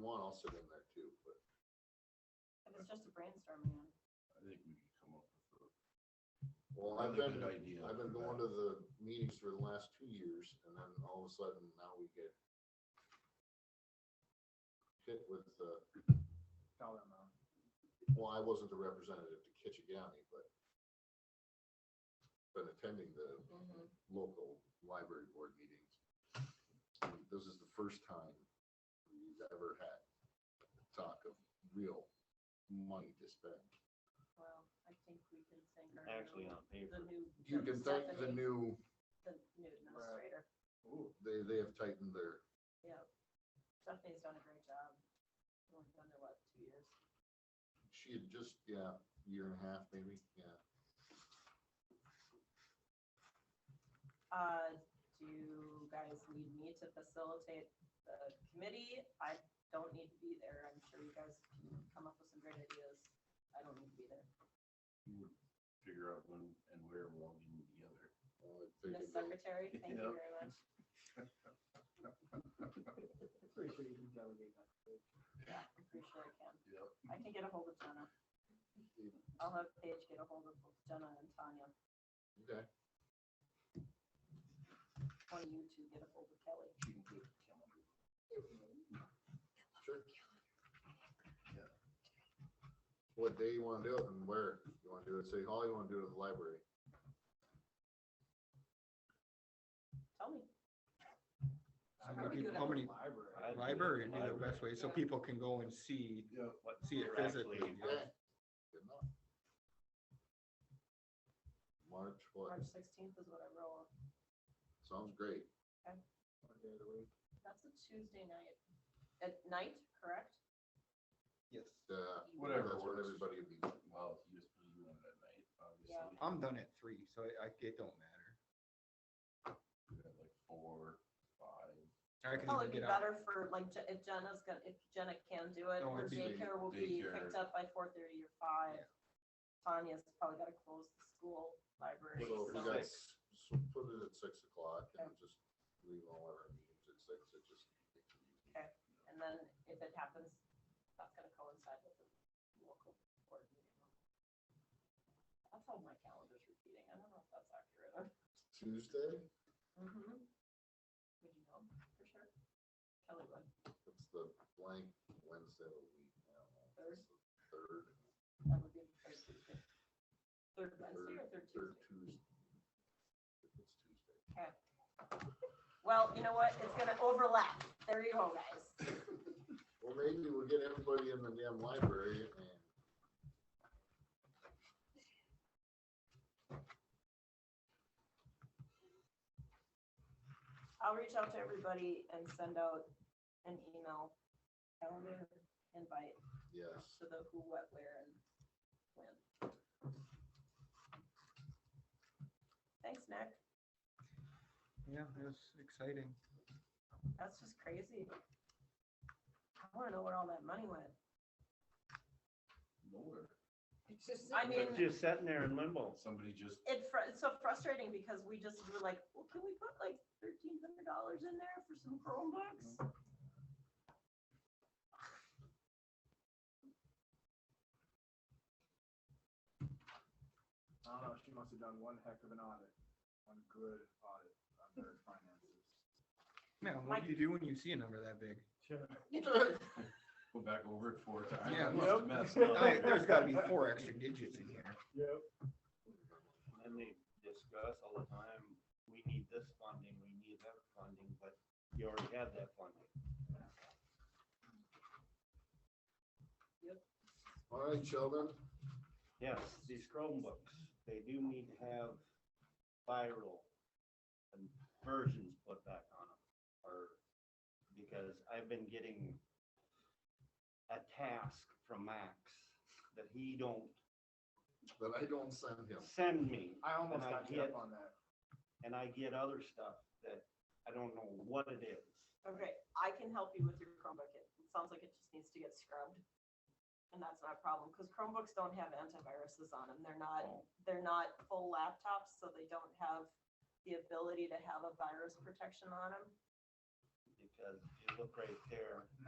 want, I'll sit in there too, but If it's just a brainstorming, one. I think we can come up with a. Well, I've Another been, good idea. I've been going to the meetings for the last two years and then all of a sudden now we get hit with the, dollar amount. well, I wasn't the representative to Kitchigami, but been attending the Mm-hmm. local library board meetings. This is the first time we've ever had talk of real money to spend. well, I think we can thank our. actually um, on new- The paper. new. You can thank the Stephanie, new, The new administrator, Ooh, they, they have tightened their yeah. Stephanie's done a great job. We've done it, what, two years? She had just, yeah, year and a half maybe, yeah. Uh, do you guys need me to facilitate the committee? I don't need to be there. I'm sure you guys can come up with some great ideas. I don't need to be there. You would figure out when and where we're all getting together. Well, I think it Miss will. Secretary, thank you Yeah. very much. I'm pretty sure you can delegate that. Yeah, I'm pretty sure I can. Yep. I can get a hold of Jenna. I'll have Paige get a hold of both Jenna and Tanya. Okay, One of you two get a hold of Kelly. She can put it in the calendar. sure. What day you wanna do it and where? You wanna do it at City Hall, you wanna do it at the library? Tell me. How How many, do how that? many library? I- Library, would be the best way, so people can go and see, Yeah. What see it we're physically. actually- yeah. Okay, Good enough. March, what? March sixteenth is what I roll. Sounds great. One day of the week. That's a Tuesday night. At night, correct? Yes. Uh, Whatever That's what works. everybody would be. Well, you just put it on at night, obviously. Yeah. I'm done at three, so I, I- it don't matter. We're at Like four, five. I can Probably Oh, be even get out. better for, like, Je- if Jenna's gonna, if Jenna can do it, No, her it'd be daycare will be daycare. picked up by four thirty or five. Yeah. Tanya's probably gotta close the school library. So if we so- got, Six. so put it at six o'clock and just leave all our meetings at six, it just. And then if it happens, that's gonna coincide with the local board meeting. That's how my calendar's repeating. I don't know if that's accurate. Tuesday, Mm-hmm. Would you know for sure? Kelly would. it's the blank Wednesday of the week. I don't know. Third? Third, That would be the third Tuesday. Third Wednesday or third third Tuesday? Tuesday. If It's Tuesday. Okay. Well, you know what? It's gonna overlap. There you go, guys. Well, maybe we'll get everybody in the damn library and. I'll reach out to everybody and send out an email calendar invite Yes, to the who, what, where, and when. Thanks, Nick. Yeah, it was exciting. That's just crazy. I wanna know where all that money went. Nowhere. It's just. I mean, It's Just sitting there in limbo. Somebody just, it fr- it's so frustrating because we just were like, well, can we put like thirteen hundred dollars in there for some Chromebooks? I don't know, she must have done one heck of an audit, one good audit on her finances. Man, what do you do when you see a number that big? go back over it four times. Yeah. I must have messed I- up. There's gotta be four extra digits in here. Yep. And they discuss all the time, we need this funding, we need that funding, but you already had that funding. all right, children, Yes, these Chromebooks, they do need to have viral and versions put back on them, or, because I've been getting a task from Max that he don't that I don't send him. send me, I almost And I got hit get- on that. and I get other stuff that I don't know what it is. Okay, I can help you with your Chromebook. It it sounds like it just needs to get scrubbed. And that's not a problem, because Chromebooks don't have antiviruses on them. They're not, they're not full laptops, so they don't have the ability to have a virus protection on them. Because you look right there,